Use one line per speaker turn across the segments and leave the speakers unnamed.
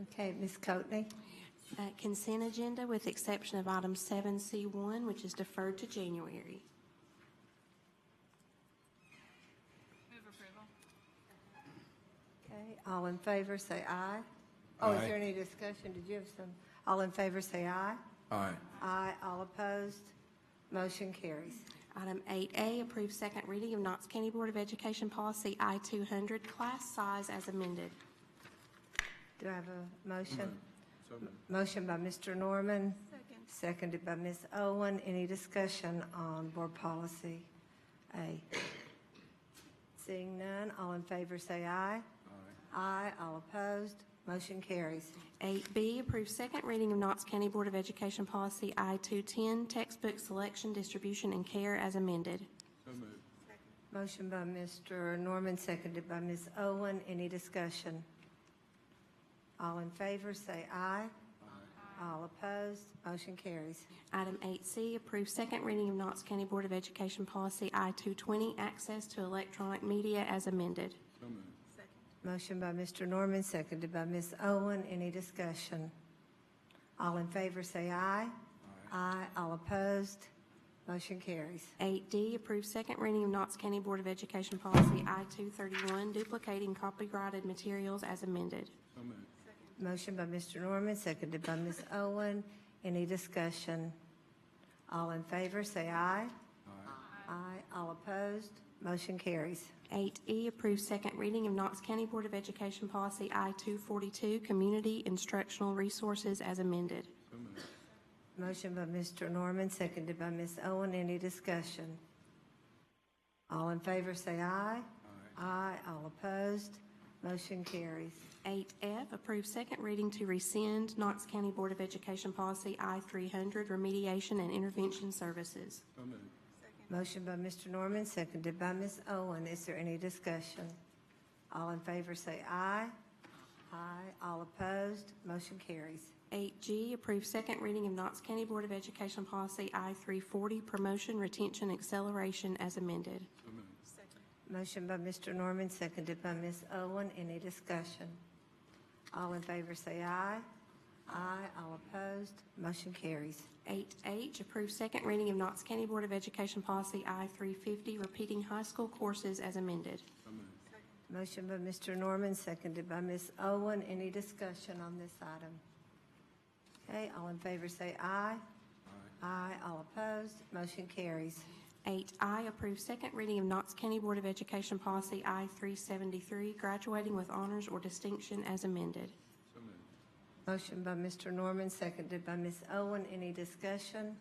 Okay, Ms. Coatley?
Uh, Consent agenda with exception of item 7C1, which is deferred to January.
Move approval.
Okay, all in favor, say aye. Oh, is
Aye.
there any discussion? Did you have some? All in favor, say aye.
Aye.
Aye, all opposed, motion carries.
Item 8A, approve second reading of Knox County Board of Education Policy I-200, class size as amended.
Do I have a motion? Motion by Mr. Norman,
Second.
seconded by Ms. Owen. Any discussion on board policy A? Seeing none, all in favor, say aye. Aye, all opposed, motion carries.
8B, approve second reading of Knox County Board of Education Policy I-210, textbook selection, distribution, and care as amended.
So moved.
Motion by Mr. Norman, seconded by Ms. Owen. Any discussion? All in favor, say aye. All opposed, motion carries.
Item 8C, approve second reading of Knox County Board of Education Policy I-220, access to electronic media as amended.
So moved.
Motion by Mr. Norman, seconded by Ms. Owen. Any discussion? All in favor, say aye. Aye. All opposed, motion carries.
8D, approve second reading of Knox County Board of Education Policy I-231, duplicating copyrighted materials as amended.
So moved.
Motion by Mr. Norman, seconded by Ms. Owen. Any discussion? All in favor, say aye. Aye. All opposed, motion carries.
8E, E, approve second reading of Knox County Board of Education Policy I-242, community instructional resources as amended.
So moved.
Motion by Mr. Norman, seconded by Ms. Owen. Any discussion? All in favor, say aye. Aye. All opposed, motion carries.
8F, approve second reading to rescind Knox County Board of Education Policy I-300, remediation and intervention services.
So moved.
Motion by Mr. Norman, seconded by Ms. Owen. Is there any discussion? All in favor, say aye. Aye. All opposed, motion carries.
8G, approve second reading of Knox County Board of Education Policy I-340, promotion, retention, acceleration as amended.
So moved.
Motion by Mr. Norman, seconded by Ms. Owen. Any discussion? All in favor, say aye. Aye. All opposed, motion carries.
8H, approve second reading of Knox County Board of Education Policy I-350, repeating high school courses as amended.
So moved.
Motion by Mr. Norman, seconded by Ms. Owen. Any discussion on this item? Okay, all in favor say aye. Aye. All opposed, motion carries.
8I, approve second reading of Knox County Board of Education Policy I-373, graduating with honors or distinction as amended.
So moved.
Motion by Mr. Norman, seconded by Ms. Owen. Any discussion?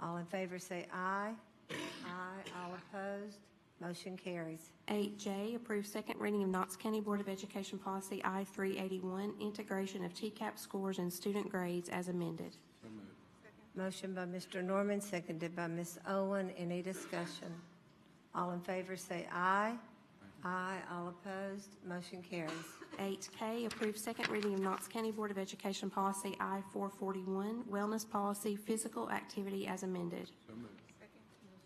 All in favor say aye. Aye. All opposed, motion carries.
8J, approve second reading of Knox County Board of Education Policy I-381, integration of TCAP scores and student grades as amended.
So moved.
Motion by Mr. Norman, seconded by Ms. Owen. Any discussion? All in favor say aye. Aye. All opposed, motion carries.
8K, approve second reading of Knox County Board of Education Policy I-441, wellness policy, physical activity as amended.
So moved.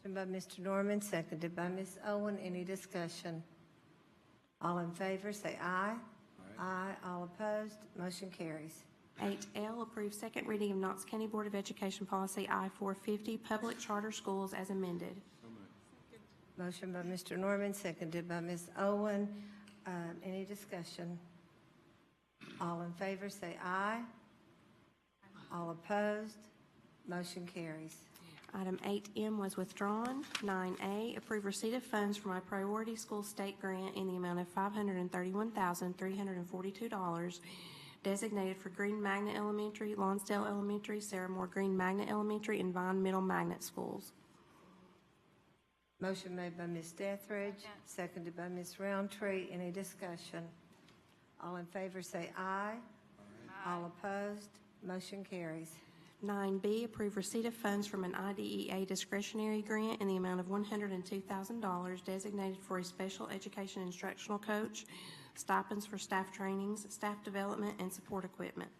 Motion by Mr. Norman, seconded by Ms. Owen. Any discussion? All in favor, say aye. Aye. All opposed, motion carries.
8L, approve second reading of Knox County Board of Education Policy I-450, public charter schools as amended.
So moved.
Motion by Mr. Norman, seconded by Ms. Owen. Um, Any discussion? All in favor, say aye. All opposed, motion carries.
Item 8M was withdrawn. 9A, approve receipt of funds from a priority school state grant in the amount of $531,342 designated for Green Magnet Elementary, Lonsdale Elementary, Sarah Moore Green Magnet Elementary, and Vine Middle Magnet Schools.
Motion made by Ms. Dethridge, seconded by Ms. Roundtree. Any discussion? All in favor, say aye. All opposed, motion carries.
9B, approve receipt of funds from an IDEA discretionary grant in the amount of $102,000 designated for a special education instructional coach, stipends for staff trainings, staff development, and support equipment.